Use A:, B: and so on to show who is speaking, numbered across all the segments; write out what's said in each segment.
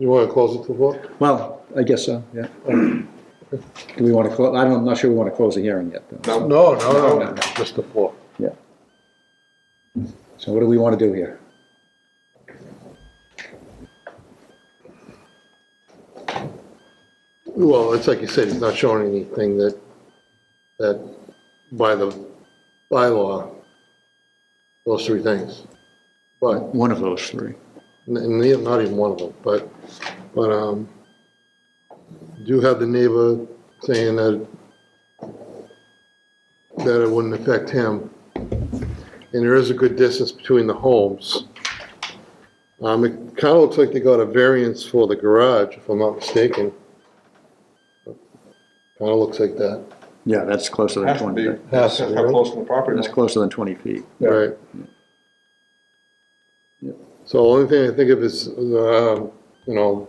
A: You want to close it for four?
B: Well, I guess so, yeah. Do we want to, close? I don't, I'm not sure we want to close the hearing yet, though.
A: No, no, no, just the four.
B: Yeah. So what do we want to do here?
A: Well, it's like you said, it's not showing anything that, that by the bylaw, those three things. But,
B: Uh, One of those three.
A: n- and the- not even one of them, but, but, um, do have the neighbor saying that, that it wouldn't affect him. And there is a good distance between the homes. Um, it kind of looks like they got a variance for the garage, if I'm not mistaken. Kind of looks like that.
B: Yeah, that's closer than
C: Has to be,
B: twenty,
C: that's how close to the property
B: that's
C: line.
B: closer than twenty feet.
C: Yeah.
A: Right.
B: Yep.
A: So the only thing I think of is, um, you know,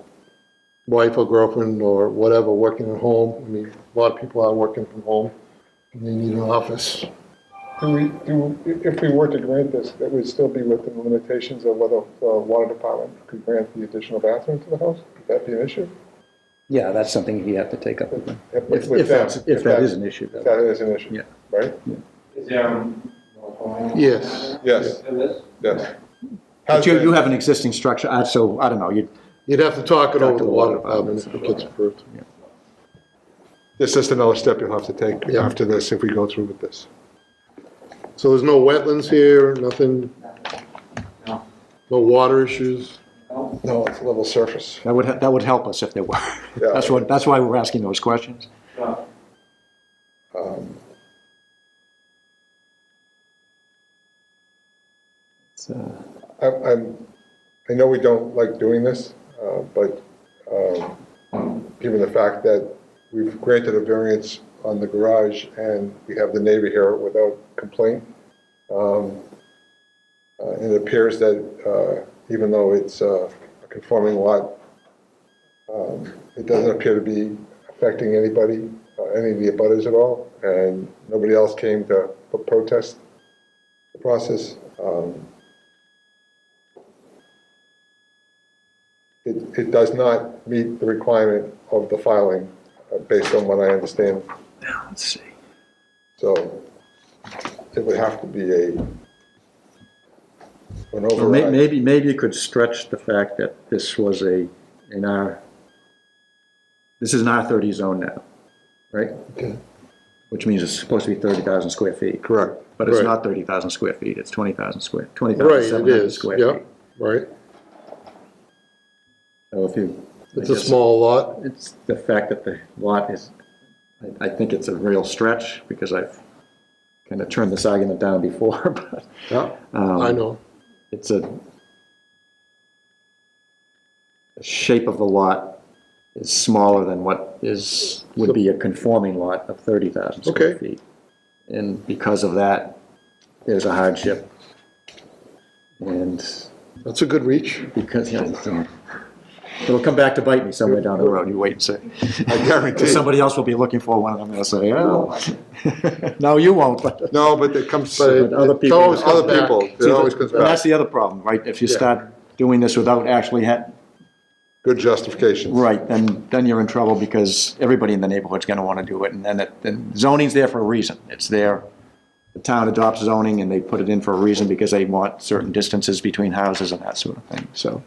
A: wife or girlfriend or whatever, working at home. I mean, a lot of people are working from home. and They need an office.
D: Do we, do, if we were to grant this, that would still be within the limitations of whether the water department could grant the additional bathroom to the house? Would that be an issue?
B: Yeah, that's something you have to take up with them.
D: If-
B: If,
D: with
B: if that's,
D: them,
B: if that is an issue,
D: If
B: though.
D: that is an issue,
B: Yeah.
D: right?
E: Is there, um, no comment?
A: Yes.
C: Yes,
E: To this?
C: yes.
B: But you, you have an existing structure, uh, so, I don't know, you,
A: You'd have to talk it
B: Talk
A: over
B: to
A: the
B: the
A: water
B: water
A: department if it
B: department.
A: gets approved.
C: It's just another step you'll have to take
A: Yeah.
C: after this, if we go through with this.
A: So there's no wetlands here, nothing?
E: No.
A: No water issues?
E: No?
C: No, it's level surface.
B: that would, he- that would help us if there were.
C: Yeah.
B: That's what, that's why we're asking those questions.
E: No.
B: It's, uh,
D: I'm, I'm, I know we don't like doing this, uh, but, um, given the fact that we've granted a variance on the garage and we have the neighbor here without complaint, um, uh, and it appears that, uh, even though it's uh, a conforming lot, um, it doesn't appear to be affecting anybody, uh, any of the abutters at all, and nobody else came to protest the process. Um, it, it does not meet the requirement of the filing, uh, based on what I understand.
B: now, let's see.
D: So it would have to be a, an
B: Well, may-
D: override.
B: Maybe, maybe you could stretch the fact that this was a, in our, this is an R thirty zone now, right?
A: Okay.
B: Which means it's supposed to be thirty thousand square feet,
C: Correct.
B: but it's
A: Right.
B: not thirty thousand square feet, it's twenty thousand square, twenty
A: Right,
B: thousand
A: it
B: seven hundred
A: is.
B: square
A: Yeah,
B: feet.
A: right.
B: So if you. I
A: It's a
B: guess
A: small lot.
B: It's the fact that the lot is, I, I think it's a real stretch, because I've kind of turned this argument down before, but
A: Yeah.
B: Um,
A: I know.
B: it's a, the shape of the lot is smaller than what is, would be a conforming lot of 30,000 square
A: Okay.
B: feet. And because of that, there's a hardship. And
A: That's a good reach.
B: because, you know, so- it'll come back to bite me somewhere down the road, you wait and see. I guarantee. Somebody else will be looking for one, and I'm gonna say, oh. No, you won't, but.
C: No, but it comes,
A: But
C: other
A: it-
B: But other
A: it
B: people-
A: always comes
C: Other people,
A: back.
C: it always comes
B: And
C: back.
B: that's the other problem, right? If you
A: Yeah.
B: start doing this without actually ha-
C: Good justification.
B: Right, then, then you're in trouble because everybody in the neighborhood's gonna wanna do it, and then, it- then zoning's there for a reason. It's there, the town adopts zoning and they put it in for a reason because they want certain distances between houses and that sort of thing, so.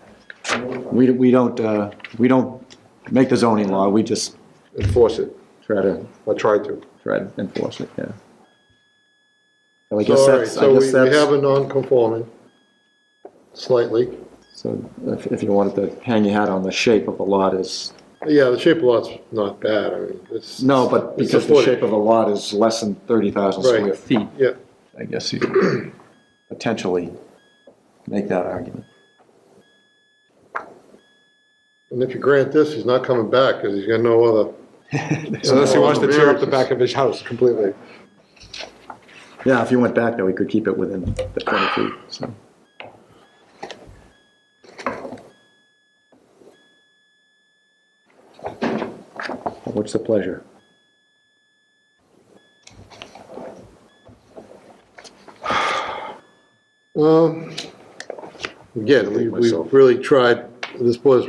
B: We, we don't, uh, we don't make the zoning law, we just
C: Enforce it.
B: try to,
C: I tried to.
B: try to enforce it, yeah. So I guess
A: Sorry,
B: that's, I
A: so
B: guess
A: we, we
B: that's-
A: have a non-conforming slightly.
B: So if, if you wanted to hang your hat on the shape of a lot is,
A: Yeah, the shape of lot's not bad, I mean, it's.
B: no,
A: it's
B: but
A: a
B: because the
A: footing.
B: shape of a lot is less than thirty thousand square
A: Right.
B: feet,
A: Yeah,
B: I guess you could potentially make that argument.
A: and if you grant this, he's not coming back, because he's got no other,
C: Unless he wants to tear up the back of his house completely.
B: Yeah, if you went back there, we could keep it within the twenty feet, so. What's the pleasure?
A: um, again, we,
B: Myself.
A: we've really tried, this board's